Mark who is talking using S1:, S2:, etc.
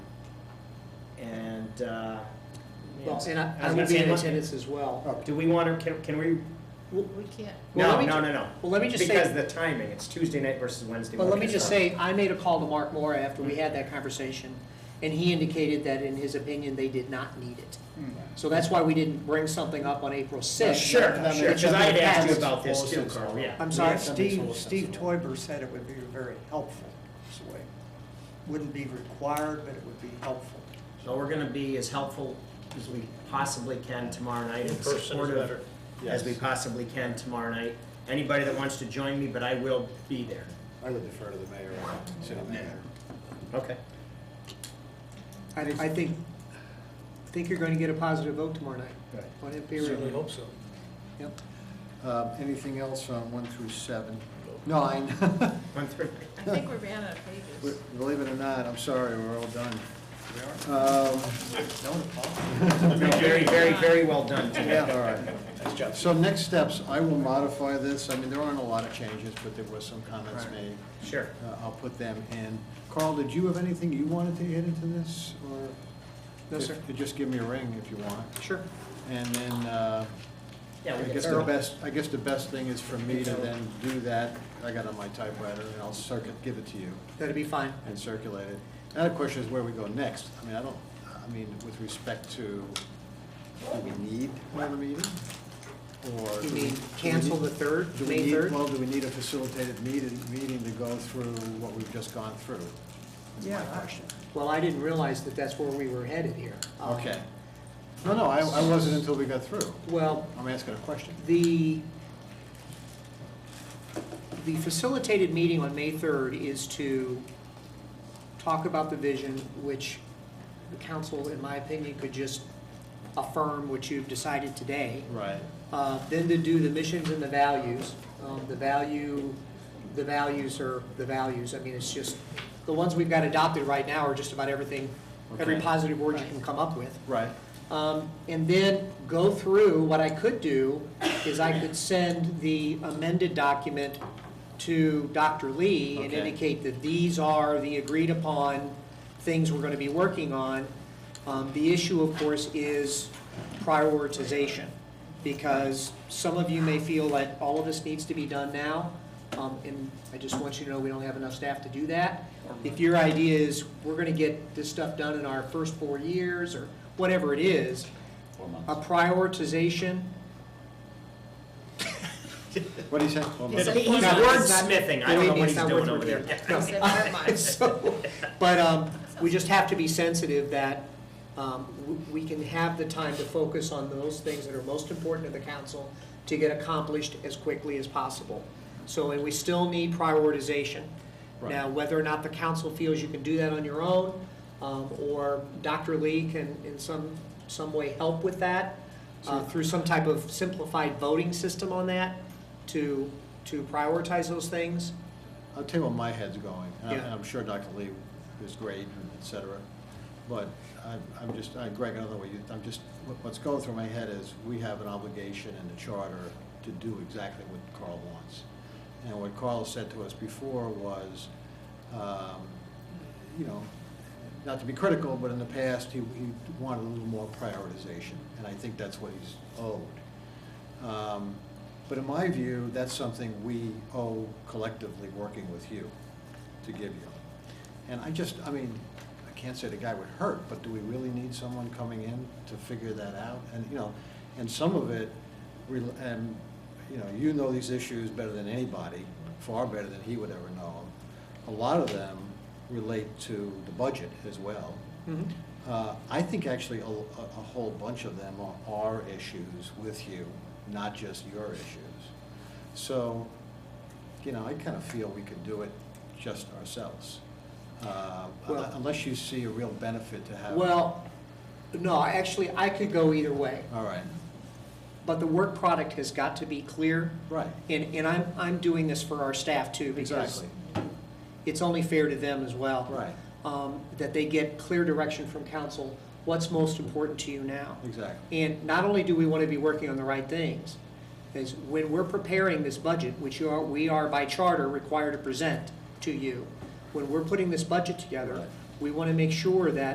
S1: uh,
S2: Well, and I,
S1: I
S2: I
S1: was
S2: will
S1: gonna say
S2: be in
S1: Monday.
S2: attendance as
S3: Oh,
S2: well.
S1: do we want to, can, can we,
S2: Well,
S4: We can't.
S2: well,
S1: no,
S2: let me
S1: no, no,
S2: ju-
S1: no.
S2: Well, let me just
S1: Because
S2: say,
S1: the timing, it's Tuesday night versus Wednesday.
S2: but let me
S1: morning.
S2: just say, I made a call to Mark Moore after
S1: Mm.
S2: we had that conversation, and he indicated that in his opinion, they did not need it. So that's why we didn't bring something up on April
S1: Sure,
S2: sixth.
S1: Mm. Uh, sure,
S3: That
S1: because
S3: makes-
S1: I had asked you
S3: That's
S1: about this too,
S3: close.
S1: Carl, yeah.
S2: I'm sorry?
S3: Steve, Steve Toiber said it would be very helpful, this way. Wouldn't be required, but it would be helpful.
S1: So we're gonna be as helpful as we possibly can tomorrow night and
S5: person is better.
S1: supportive as we
S6: Yes.
S1: possibly can tomorrow night. Anybody that wants to join me, but I will be there.
S6: I would defer to the mayor, and city manager.
S1: Okay.
S2: I, I think, I think you're going to get a positive vote tomorrow night.
S1: Right.
S2: On it,
S5: Certainly
S2: period.
S5: hope so.
S2: Yep.
S3: Um, Anything else on one through seven? Nine.
S1: One, three.
S4: I think we ran out of pages.
S3: Believe it or not, I'm sorry, we're all done. Um,
S1: Very, very, very well done, Tim.
S3: Yeah, all right. So next steps, I will modify this. I mean, there aren't a lot of changes, but there were some comments made.
S1: Sure.
S3: Uh, I'll put them in. Carl, did you have anything you wanted to add into this, or?
S2: No, sir.
S3: If- Just give me a ring if you want.
S2: Sure.
S3: And then, uh,
S1: Yeah,
S3: I
S1: we
S3: guess
S1: get
S3: the
S1: Carl.
S3: best, I guess the best thing is for me to then do that. I got it on my typewriter, and I'll circuit, give it to you
S2: That'd be fine.
S3: and circulate it. Now the question is where we go next. I mean, I don't, I mean, with respect to, do we need another meeting? Or?
S2: You
S3: do we-
S2: mean
S3: do we
S2: cancel
S3: need-
S2: the third,
S3: do we
S2: May
S3: need-
S2: third?
S3: Well, do we need a facilitated meeting, meeting to go through what we've just gone through? That's my question.
S2: Well, I didn't realize that that's where we were headed here. Um,
S3: Okay. No, no, I, I wasn't until we got through.
S2: Well,
S3: I'm asking a question.
S2: the, the facilitated meeting on May 3rd is to talk about the vision, which the council, in my opinion, could just affirm what you've decided today.
S3: Right.
S2: Uh, Then to do the missions and the values. Um, The value, the values are the values. I mean, it's just, the ones we've got adopted right now are just about everything, every
S3: Okay.
S2: positive word you can come up with.
S3: Right.
S2: Um, And then go through, what I could do is I could send the amended document to Dr. Lee and
S3: Okay.
S2: indicate that these are the agreed-upon things we're going to be working on. Um, The issue, of course, is prioritization, because some of you may feel that all of this needs to be done now, um, and I just want you to know we don't have enough staff to do that. If your idea is, we're going to get this stuff done in our first four years, or whatever it is, a prioritization,
S3: What do you say? Well,
S1: He's
S4: It's a-
S1: wordsmithing. I don't know what he's
S2: It's not
S1: doing
S2: worth
S1: over there.
S2: repeating.
S4: I said never mind.
S2: So, but um, we just have to be sensitive that um, w- we can have the time to focus on those things that are most important to the council to get accomplished as quickly as possible. So, and we still need prioritization. Now,
S3: Right.
S2: whether or not the council feels you can do that on your own, um, or Dr. Lee can in some, some way help with that, uh, through some type of simplified voting system on that, to, to prioritize those things.
S3: I'll tell you where my head's going, and I'm-
S2: Yeah.
S3: and I'm sure Dr. Lee is great, and et cetera, but I'm, I'm just, I- Greg, I don't know what you, I'm just, what- what's going through my head is, we have an obligation in the charter to do exactly what Carl wants. And what Carl said to us before was, um, you know, not to be critical, but in the past, he, he wanted a little more prioritization, and I think that's what he's owed. Um, But in my view, that's something we owe collectively working with you to give you. And I just, I mean, I can't say the guy would hurt, but do we really need someone coming in to figure that out? And, you know, and some of it, rel- and, you know, you know these issues better than anybody, far better than he would ever know them. A lot of them relate to the budget as well. Uh, I think actually a, a a whole bunch of them are, are issues with you, not just your issues. So, you know, I kind of feel we could do it just ourselves. Uh,
S2: Well-
S3: Unless you see a real benefit to have.
S2: Well, no, actually, I could go either way,
S3: All right,
S2: but the work product has got to be clear.
S3: right,
S2: And, and I'm, I'm doing this for our staff too, because
S3: exactly,
S2: it's only fair to them as well.
S3: right,
S2: Um, that they get clear direction from council, what's most important to you now.
S3: exactly,
S2: And not only do we want to be working on the right things, is when we're preparing this budget, which you are, we are by charter required to present to you, when we're putting this budget together,
S3: Right.
S2: we want to make sure that